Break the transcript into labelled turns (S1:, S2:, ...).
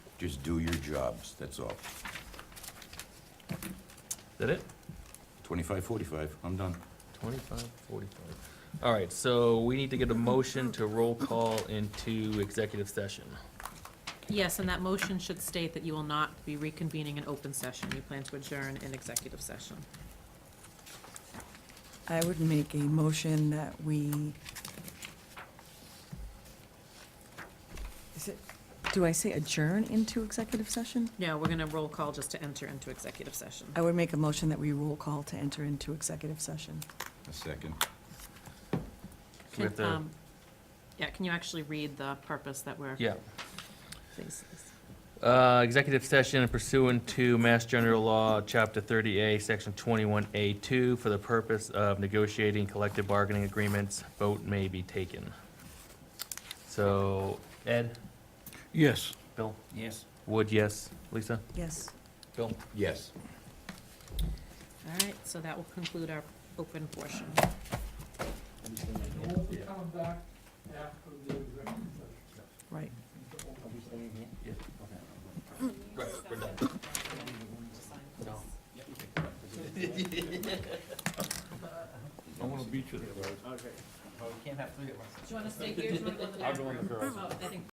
S1: Just do your jobs, that's all.
S2: that it?
S1: Twenty-five, forty-five, I'm done.
S2: Twenty-five, forty-five. All right, so we need to get a motion to roll call into executive session.
S3: Yes, and that motion should state that you will not be reconvening an open session. You plan to adjourn in executive session.
S4: I would make a motion that we, is it, do I say adjourn into executive session?
S3: No, we're gonna roll call just to enter into executive session.
S4: I would make a motion that we roll call to enter into executive session.
S1: A second.
S2: we have
S3: Can,
S2: to-
S3: um, Yeah, can you actually read the purpose that we're?
S2: Yeah.
S3: Please.
S2: Uh, executive session pursuant to Mass General Law, Chapter 30A, Section 21A2, for the purpose of negotiating collective bargaining agreements, vote may be taken. So, Ed,
S5: Yes.
S2: Bill,
S1: Yes.
S2: Wood, yes, Lisa,
S4: Yes.
S2: Bill?
S1: Yes.
S3: All right, so that will conclude our open portion.
S6: We'll be coming back after the executive session.
S4: Right.
S5: I want to beat you there, guys.
S3: Do you wanna stay here? Do you wanna go to the back room? Oh, I think